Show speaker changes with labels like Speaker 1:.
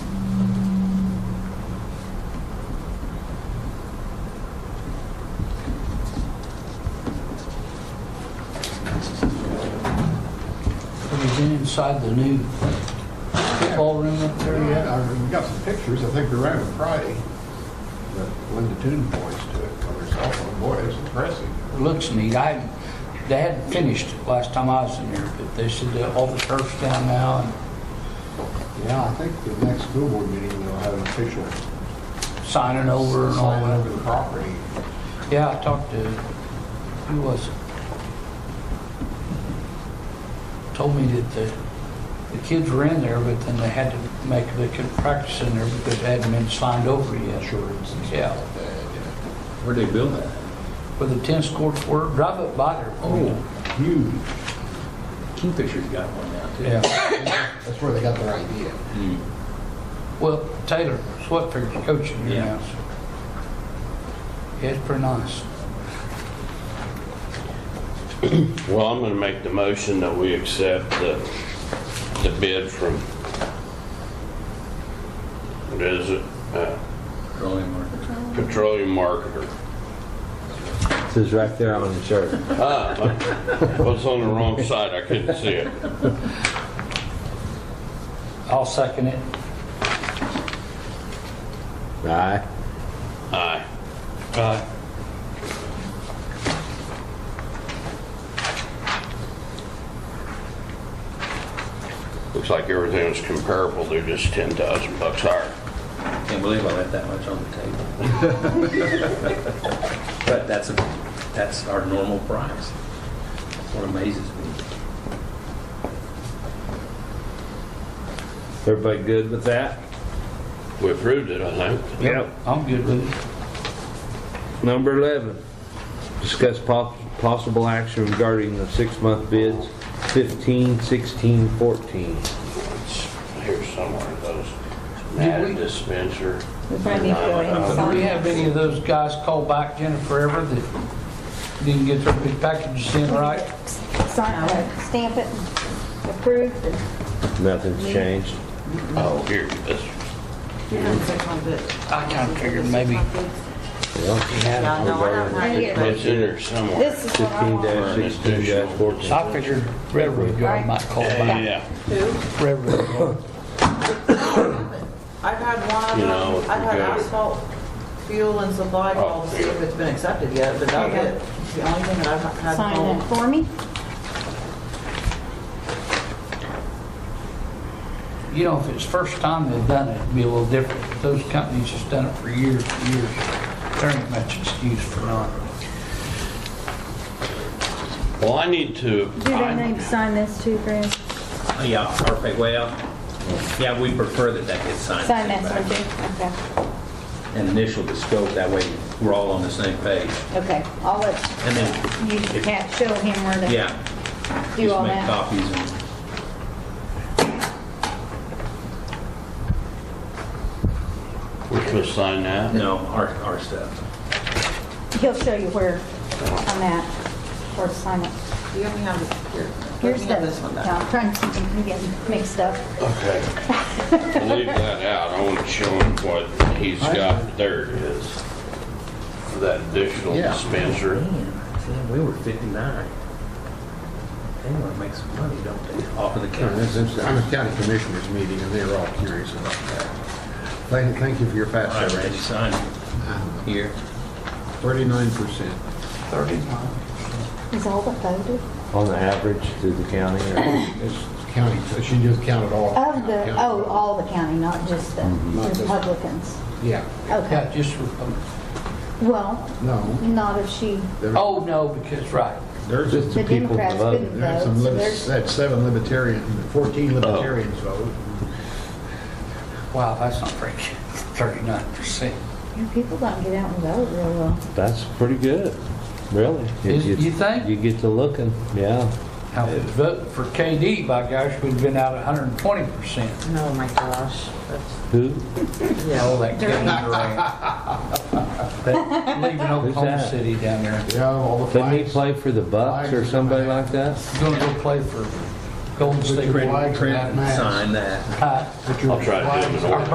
Speaker 1: inside the new ballroom up there yet?
Speaker 2: Yeah, I mean, we got some pictures, I think they're around Friday, but Linda Toon points to it on her cell phone, boy, it's impressive.
Speaker 1: It Looks neat. I, haven't- they hadn't finished it last time I was in there, but they said that all the turf's down now and
Speaker 2: Yeah, I think the next school board meeting, they'll have an official
Speaker 1: signing over and all
Speaker 2: sign over
Speaker 1: that.
Speaker 2: the property.
Speaker 1: Yeah, I talked to, who was it? Told me that the, the kids were in there, but then they had to make, they couldn't practice in there because it hadn't been signed over yet.
Speaker 2: Insurance and
Speaker 1: Yeah.
Speaker 2: stuff like that, yeah.
Speaker 3: Where'd they build that?
Speaker 1: Where the tennis courts were, drive up by there.
Speaker 2: Huge,
Speaker 3: Kingfisher's got one now, too.
Speaker 1: Yeah.
Speaker 2: that's where they got their idea.
Speaker 3: Hmm.
Speaker 1: Well, Taylor Sweatfield's coaching here
Speaker 3: Yeah.
Speaker 1: now, so. Yeah, it's pretty nice.
Speaker 4: Well, I'm going to make the motion that we accept the, the bid from, what is it? Uh,
Speaker 3: Petroleum market.
Speaker 4: Petroleum marketer.
Speaker 5: This is right there on the shirt.
Speaker 4: Ah, I was on the wrong side, I couldn't see it.
Speaker 1: I'll second it.
Speaker 5: Aye.
Speaker 4: Aye. Aye. Looks like everything is comparable, they're just 10,000 bucks higher.
Speaker 3: Can't believe I left that much on the table. But that's, a that's our normal price. That's what amazes me.
Speaker 5: Everybody good with that?
Speaker 4: We approved it, I think.
Speaker 5: Yep.
Speaker 1: I'm good with it.
Speaker 5: Number 11, discuss pos- possible action regarding the six-month bids 15, 16, 14.
Speaker 4: It's Here somewhere, those
Speaker 1: Did
Speaker 4: mad
Speaker 1: we-
Speaker 4: dispenser.
Speaker 6: I need to go ahead and
Speaker 1: Do
Speaker 6: sign
Speaker 1: we
Speaker 6: it.
Speaker 1: have any of those guys call back Jennifer ever that didn't get their big packages in right?
Speaker 6: Sign it, stamp it, and approve, and
Speaker 5: Nothing's changed.
Speaker 4: Oh, here, this,
Speaker 1: I kind of figured maybe.
Speaker 7: No, no, I don't
Speaker 6: I
Speaker 7: know.
Speaker 6: get it.
Speaker 4: it's in there somewhere.
Speaker 6: This is what I want.
Speaker 5: 15-16-14.
Speaker 1: I figured Redwood Yard might call back.
Speaker 4: Yeah,
Speaker 1: Redwood Yard.
Speaker 7: I've had
Speaker 4: You know, if
Speaker 7: one,
Speaker 4: we
Speaker 7: I've had
Speaker 4: go-
Speaker 7: asphalt, fuel and supply call to see if it's been accepted yet, but that's
Speaker 6: Okay.
Speaker 7: it. It's The only thing that I've had
Speaker 6: Sign
Speaker 7: called.
Speaker 6: it for me.
Speaker 1: You know, if it's first time they've done it, it'd be a little different. But Those companies has done it for years and years. There ain't much excuse for not.
Speaker 4: well, I need to,
Speaker 6: Do they
Speaker 4: I-
Speaker 6: need to sign this too, Chris?
Speaker 3: Oh, Yeah, perfect, well, yeah, we prefer that that gets signed.
Speaker 6: Sign
Speaker 3: and
Speaker 6: that,
Speaker 3: sent back.
Speaker 6: so
Speaker 3: And initial the scope, that way we're all on the same page.
Speaker 6: okay. Okay, I'll let
Speaker 3: And then,
Speaker 6: you, Pat, show him where to
Speaker 3: yeah,
Speaker 6: do
Speaker 3: just
Speaker 6: all
Speaker 3: make
Speaker 6: that.
Speaker 3: copies and,
Speaker 4: we're supposed to sign that.
Speaker 3: no, our, our stuff.
Speaker 6: He'll show you where on that, where to sign it.
Speaker 7: You only have this, here, let
Speaker 6: Here's
Speaker 7: me
Speaker 6: the,
Speaker 7: have this one
Speaker 6: yeah,
Speaker 7: back.
Speaker 6: I'm trying to see if I'm getting mixed up.
Speaker 4: Okay. Leave that out, I want to show him what he's got, there it is. That additional
Speaker 2: Yeah.
Speaker 4: dispenser.
Speaker 3: Man, we were 59. They want to make some money, don't they? Off of the
Speaker 2: Yeah,
Speaker 3: county.
Speaker 2: that's interesting. I'm a county commissioners meeting, and they were all curious about that. Thank, thank you for your
Speaker 3: All right,
Speaker 2: fast
Speaker 3: ready,
Speaker 2: rates.
Speaker 3: sign here.
Speaker 2: Thirty-nine percent.
Speaker 1: Thirty-nine.
Speaker 6: Is all the photo of
Speaker 5: On the average through the county or
Speaker 2: It's county, she just counted all.
Speaker 6: the,
Speaker 2: county.
Speaker 6: oh, all the county, not just the
Speaker 2: Mm-hmm. Not just-
Speaker 6: Republicans.
Speaker 2: Yeah,
Speaker 6: Okay,
Speaker 1: Yeah, just, Repu-
Speaker 6: well,
Speaker 2: no.
Speaker 6: not if she,
Speaker 2: there-
Speaker 1: oh, no, because, right.
Speaker 2: There's,
Speaker 5: just the
Speaker 6: The
Speaker 5: people
Speaker 6: Democrats
Speaker 5: voting?
Speaker 6: couldn't-
Speaker 2: there are some,
Speaker 6: votes,
Speaker 2: limits-
Speaker 6: there's-
Speaker 2: that's seven libertarian, 14 libertarians vote.
Speaker 1: Wow, that's not very good. Thirty-nine percent.
Speaker 6: you people don't get out and vote real well.
Speaker 5: That's pretty good, really.
Speaker 1: Is-
Speaker 5: If
Speaker 1: you think?
Speaker 5: You get to looking, yeah.
Speaker 1: Now, if it's voting for KD, by gosh, we'd been out hundred and twenty percent.
Speaker 7: Oh my gosh, that's,
Speaker 5: Who?
Speaker 1: All
Speaker 7: yeah.
Speaker 1: that getting around. That- Leaving Oklahoma
Speaker 5: that?
Speaker 1: City down there.
Speaker 2: Yeah, all the
Speaker 5: Didn't he
Speaker 2: flags.
Speaker 5: play for the Bucks or somebody like that?
Speaker 1: Gonna go play for Golden State.
Speaker 2: Print-
Speaker 1: Warriors.
Speaker 2: print-
Speaker 3: Sign that.
Speaker 1: Hi.
Speaker 2: Put your
Speaker 4: I'll try to do it in
Speaker 2: flags
Speaker 4: order.
Speaker 2: up.